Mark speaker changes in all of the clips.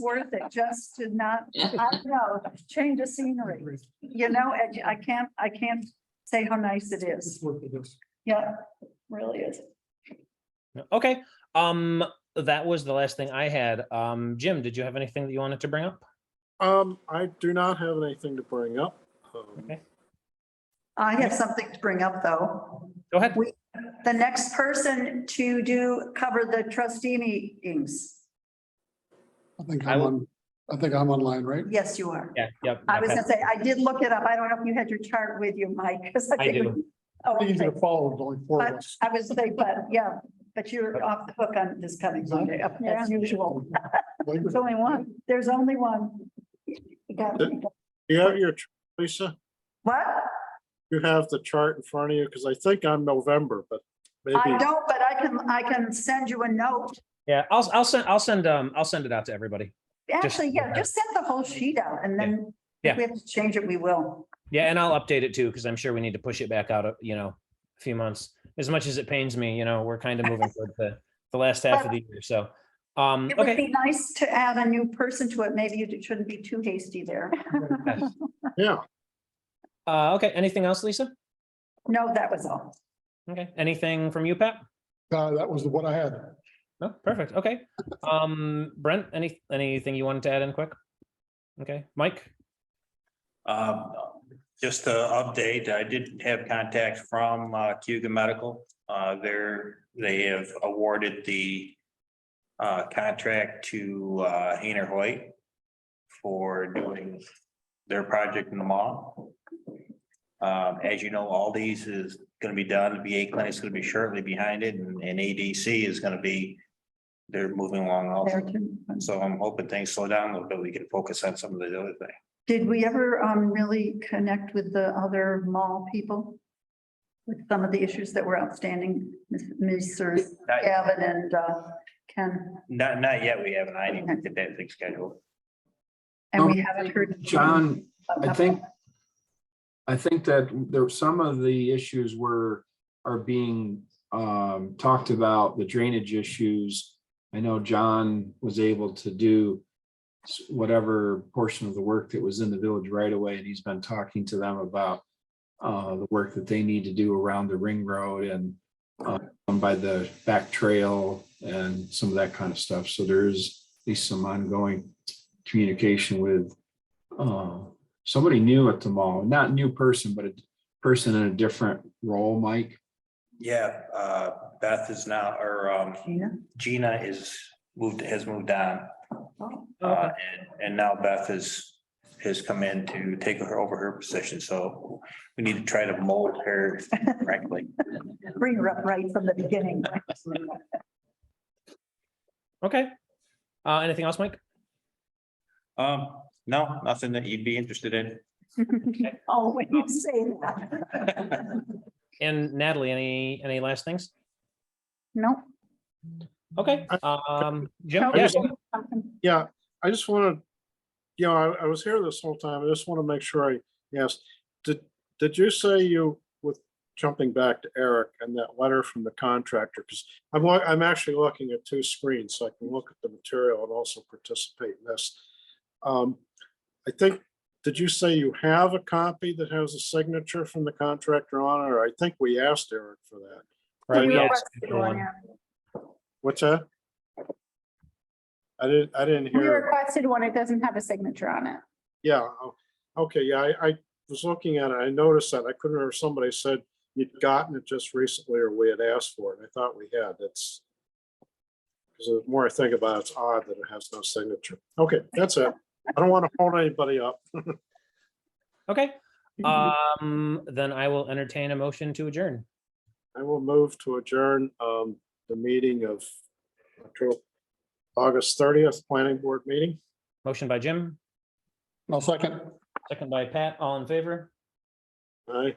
Speaker 1: worth it just to not, I don't know, change of scenery. You know, and I can't, I can't say how nice it is.
Speaker 2: It's worth it, yes.
Speaker 1: Yeah, really is.
Speaker 3: Okay, um, that was the last thing I had. Um, Jim, did you have anything that you wanted to bring up?
Speaker 4: Um, I do not have anything to bring up. Um,
Speaker 3: Okay.
Speaker 1: I have something to bring up, though.
Speaker 3: Go ahead.
Speaker 1: The next person to do, cover the trustee meetings.
Speaker 2: I think
Speaker 3: I
Speaker 2: I'm
Speaker 3: will-
Speaker 2: on, I think I'm online, right?
Speaker 1: Yes, you are.
Speaker 3: Yeah, yep.
Speaker 1: I was
Speaker 3: okay.
Speaker 1: gonna say, I did look it up. I don't know if you had your chart with you, Mike. 'cause
Speaker 3: I
Speaker 1: think- Oh,
Speaker 2: Easy
Speaker 1: okay.
Speaker 2: to follow, there's only four of
Speaker 1: But
Speaker 2: us.
Speaker 1: I was saying, but yeah, but you're off the hook on this coming Sunday, as usual.
Speaker 2: Like,
Speaker 1: There's only one. There's only one. You got- you got-
Speaker 4: You have your, ch- Lisa,
Speaker 1: What?
Speaker 4: you have the chart in front of you, because I think I'm November, but
Speaker 1: I
Speaker 4: maybe,
Speaker 1: don't, but I can, I can send you a note.
Speaker 3: Yeah, I'll, I'll send, I'll send, um, I'll send it out to everybody.
Speaker 1: Actually, yeah, just send the whole sheet out and then
Speaker 3: Yeah.
Speaker 1: if we have to change it, we will.
Speaker 3: Yeah, and I'll update it too, because I'm sure we need to push it back out, uh, you know, a few months. As much as it pains me, you know, we're kind of moving toward the, the last half of the year, so. Um,
Speaker 1: It would
Speaker 3: okay,
Speaker 1: be nice to add a new person to it. Maybe you shouldn't be too hasty there.
Speaker 4: yeah.
Speaker 3: uh, okay, anything else, Lisa?
Speaker 1: No, that was all.
Speaker 3: Okay, anything from you, Pat?
Speaker 2: Uh, that was what I had.
Speaker 3: No, perfect, okay. Um, Brent, any, anything you wanted to add in quick? Okay, Mike?
Speaker 5: Um, just to update, I did have contact from uh, Cuba Medical. Uh, they're, they have awarded the uh, contract to uh, Hayner Hoyt for doing their project in the mall. Um, as you know, Aldi's is gonna be done, the VA clinic's gonna be shortly behind it, and and ADC is gonna be, they're moving along
Speaker 1: There
Speaker 5: also.
Speaker 1: too.
Speaker 5: So I'm hoping things slow down a little bit, we can focus on some of the other things.
Speaker 1: Did we ever um really connect with the other mall people? With some of the issues that were outstanding, Mr.
Speaker 5: Not-
Speaker 1: Gavin and uh Ken,
Speaker 5: Not, not yet, we haven't, I didn't get that thing scheduled.
Speaker 1: and we haven't heard.
Speaker 6: John, I think, I think that there, some of the issues were, are being um, talked about, the drainage issues. I know John was able to do s- whatever portion of the work that was in the village right away, and he's been talking to them about uh, the work that they need to do around the ring road and uh, by the back trail and some of that kind of stuff. So there is at least some ongoing communication with uh, somebody new at the mall, not new person, but a person in a different role, Mike.
Speaker 5: Yeah, uh, Beth is now, or, um,
Speaker 1: Gina?
Speaker 5: Gina is moved, has moved on.
Speaker 1: Oh,
Speaker 5: Uh, and, and now Beth is, has come in to take her over her position, so we need to try to mold her correctly.
Speaker 1: Bring her up right from the beginning.
Speaker 3: Okay. Uh, anything else, Mike?
Speaker 5: Um, no, nothing that you'd be interested in.
Speaker 1: Oh, when you say that.
Speaker 3: And Natalie, any, any last things?
Speaker 1: No.
Speaker 3: Okay, um, Jim,
Speaker 1: no,
Speaker 3: yeah,
Speaker 4: Yeah, I just want to, you know, I, I was here this whole time. I just want to make sure I, yes, did, did you say you, with jumping back to Eric and that letter from the contractor? Because I'm, wa- I'm actually looking at two screens, so I can look at the material and also participate in this. Um, I think, did you say you have a copy that has a signature from the contractor on it? Or I think we asked Eric for that.
Speaker 3: right,
Speaker 1: We
Speaker 3: yeah,
Speaker 1: were-
Speaker 3: it's the one.
Speaker 4: What's that? I didn't, I didn't
Speaker 7: We
Speaker 4: hear.
Speaker 7: requested one, it doesn't have a signature on it.
Speaker 4: Yeah, o- okay, yeah, I, I was looking at it, I noticed that, I couldn't remember, somebody said you'd gotten it just recently or we had asked for it, and I thought we had, that's. Because the more I think about it, it's odd that it has no signature. Okay, that's it. I don't want to hold anybody up.
Speaker 3: Okay, um, then I will entertain a motion to adjourn.
Speaker 4: I will move to adjourn, um, the meeting of October, August thirtieth, planning board meeting.
Speaker 3: Motion by Jim,
Speaker 2: I'll second.
Speaker 3: second by Pat, all in favor?
Speaker 4: I,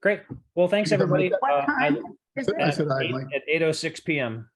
Speaker 3: Great, well, thanks,
Speaker 2: You can
Speaker 3: everybody.
Speaker 2: make
Speaker 3: Uh,
Speaker 1: What
Speaker 3: I-
Speaker 1: time? Is
Speaker 2: I
Speaker 1: it?
Speaker 2: said I,
Speaker 3: eight-
Speaker 2: Mike.
Speaker 3: At eight oh six PM.